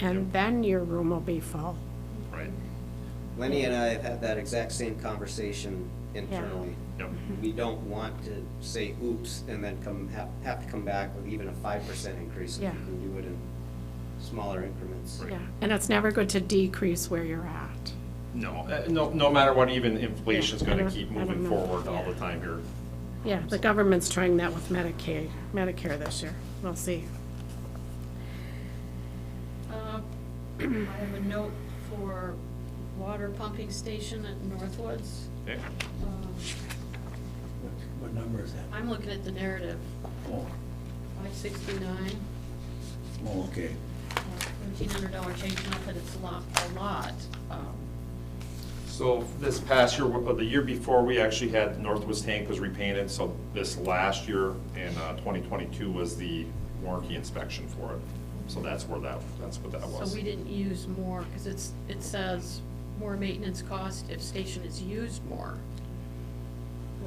and then your room will be full. Right, Lenny and I have had that exact same conversation internally. yep, Mm-hmm. We don't want to say oops and then come, have, have to come back with even a five percent increase. if Yeah. We can do it in smaller increments. Right. Yeah, and it's never good to decrease where you're at. no, uh, no, no matter what, even inflation's Yeah, I gonna don't- keep I don't moving know. forward all Yeah. the time here. Yeah, the government's trying that with Medicaid, Medicare this year. We'll see. Uh, I have a note for water pumping station at Northwoods. Yeah. Um, What- What number is that? I'm looking at the narrative, Oh, five sixty-nine, oh, okay. thirteen hundred dollar change, not that it's a lot, a lot. um, So this past year, uh, the year before, we actually had Northwest tank was repainted, so this last year in uh, twenty twenty-two was the warranty inspection for it. So that's where that, that's what that was. So we didn't use more, because it's, it says more maintenance cost if station is used more.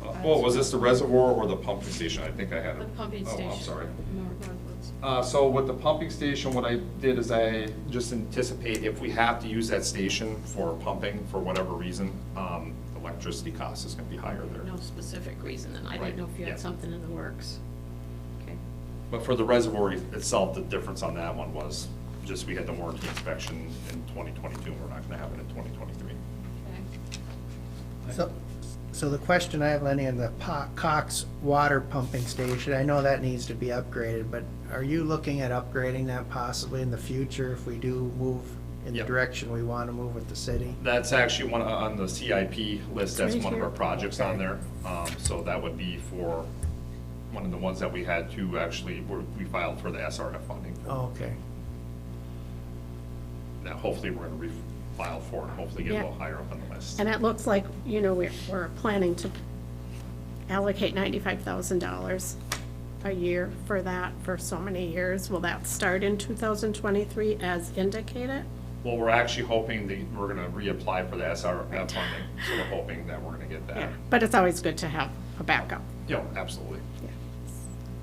Uh, Oh, was this the reservoir or the pumping station? I think I had it. The pumping station. Oh, I'm sorry. Nor- Northwoods. Uh, so with the pumping station, what I did is I just anticipate if we have to use that station for pumping for whatever reason, um, electricity cost is gonna be higher there. No specific reason, and I Right, didn't know if you yeah. had something in the works. Okay. But for the reservoir itself, the difference on that one was just we had the warranty inspection in twenty twenty-two, and we're not gonna have it in twenty twenty-three. Okay. So, so the question I have, Lenny, on the Po- Cox Water Pumping Station, I know that needs to be upgraded, but are you looking at upgrading that possibly in the future if we do move in the Yep. direction we want to move with the city? That's actually one, uh, on the CIP list, that's Right one of our here. projects on there. Um, So that would be for, one of the ones that we had to actually, we're- we filed for the SRF funding. Oh, okay. That hopefully we're gonna refile for and hopefully get a little Yeah. higher up on the list. And it looks like, you know, we're, we're planning to allocate ninety-five thousand dollars a year for that for so many years. Will that start in two thousand twenty-three as indicated? Well, we're actually hoping that we're gonna reapply for the SRF funding, so we're hoping that we're gonna get that. Yeah, but it's always good to have a backup. Yeah, absolutely.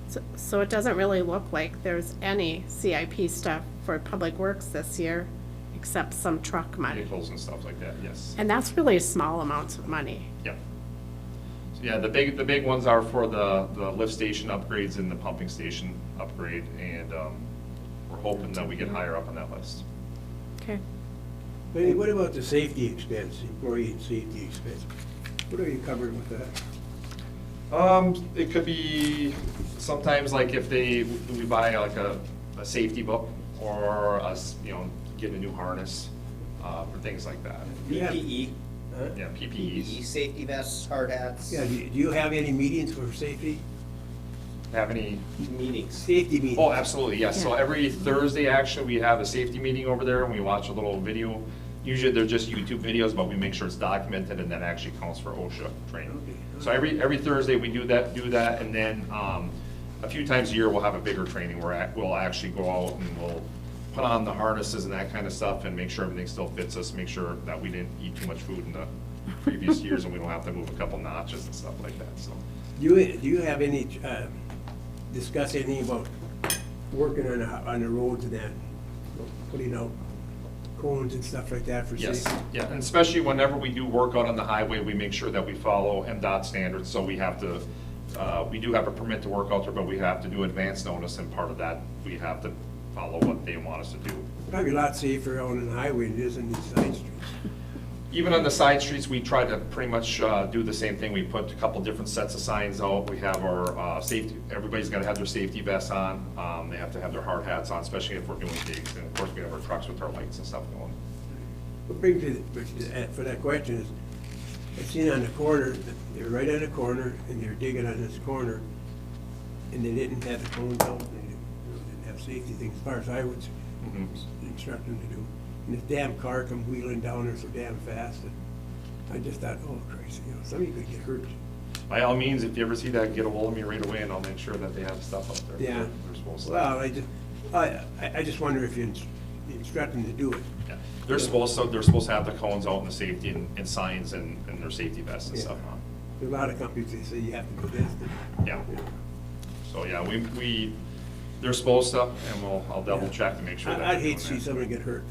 So- So it doesn't really look like there's any CIP stuff for Public Works this year, except some truck money. Vehicles and stuff like that, yes. And that's really small amounts of money. Yeah. So yeah, the big, the big ones are for the, the lift station upgrades and the pumping station upgrade, and, um, we're hoping that we get higher up on that list. Okay. Lenny, what about the safety expense, employee and safety expense? What are you covering with that? Um, it could be sometimes like if they, we buy like a, a safety book, or us, you know, get a new harness, uh, for things like that. Yeah. PPE, Huh? Yeah, PPEs. PPE, E safety vests, hard hats, Yeah, do do you have any meetings for safety? Have any meetings. Safety meetings? Oh, absolutely, yes. So Yeah. every Thursday, actually, we have a safety meeting over there and we watch a little video. Usually they're just YouTube videos, but we make sure it's documented and that actually counts for OSHA Okay. training. So every, every Thursday, we do that, do that, and then, um, a few times a year, we'll have a bigger training where act- we'll actually go out and we'll put on the harnesses and that kind of stuff and make sure everything still fits us, make sure that we didn't eat too much food in the previous years and we don't have to move a couple notches and stuff like that, so. Do you, do you have any, uh, discuss anything about working on, the- on the roads and that? Putting out cones and stuff like that for safety? Yes, yeah, and especially whenever we do work out on the highway, we make sure that we follow MDOT standards, so we have to, uh, we do have a permit to work out there, but we have to do advance notice, and part of that, we have to follow what they want us to do. Probably a lot safer on the highway than it is on these side streets. Even on the side streets, we try to pretty much uh, do the same thing. We put a couple different sets of signs out. We have our uh, safety, everybody's got to have their safety vests on. Um, They have to have their hard hats on, especially if we're doing gigs. And of course, we have our trucks with our lights and stuff going. What brings me, which- uh, for that question is, I've seen on the corner, they're right on the corner, and they're digging on this corner, and they didn't have the cones out, and they you know, didn't have safety things, as far as I would Mhm. instruct them to do. And this damn car come wheeling down there so damn fast, and I just thought, oh, crazy, you know, somebody could get hurt. By all means, if you ever see that, get a hold of me right away, and I'll make sure that they have stuff up there. Yeah. They're supposed to. Well, I just, I, I I just wonder if you ins- you instruct them to do it. Yeah. They're supposed to, they're supposed to have the cones out and the safety and and signs and and their safety vests and stuff Yeah. on. There are A lot of companies, they say you have to do this. Yeah. So, yeah, we, we, They're supposed to, and we'll, I'll double check to make sure. that I- I'd they're hate to doing see that. somebody get hurt.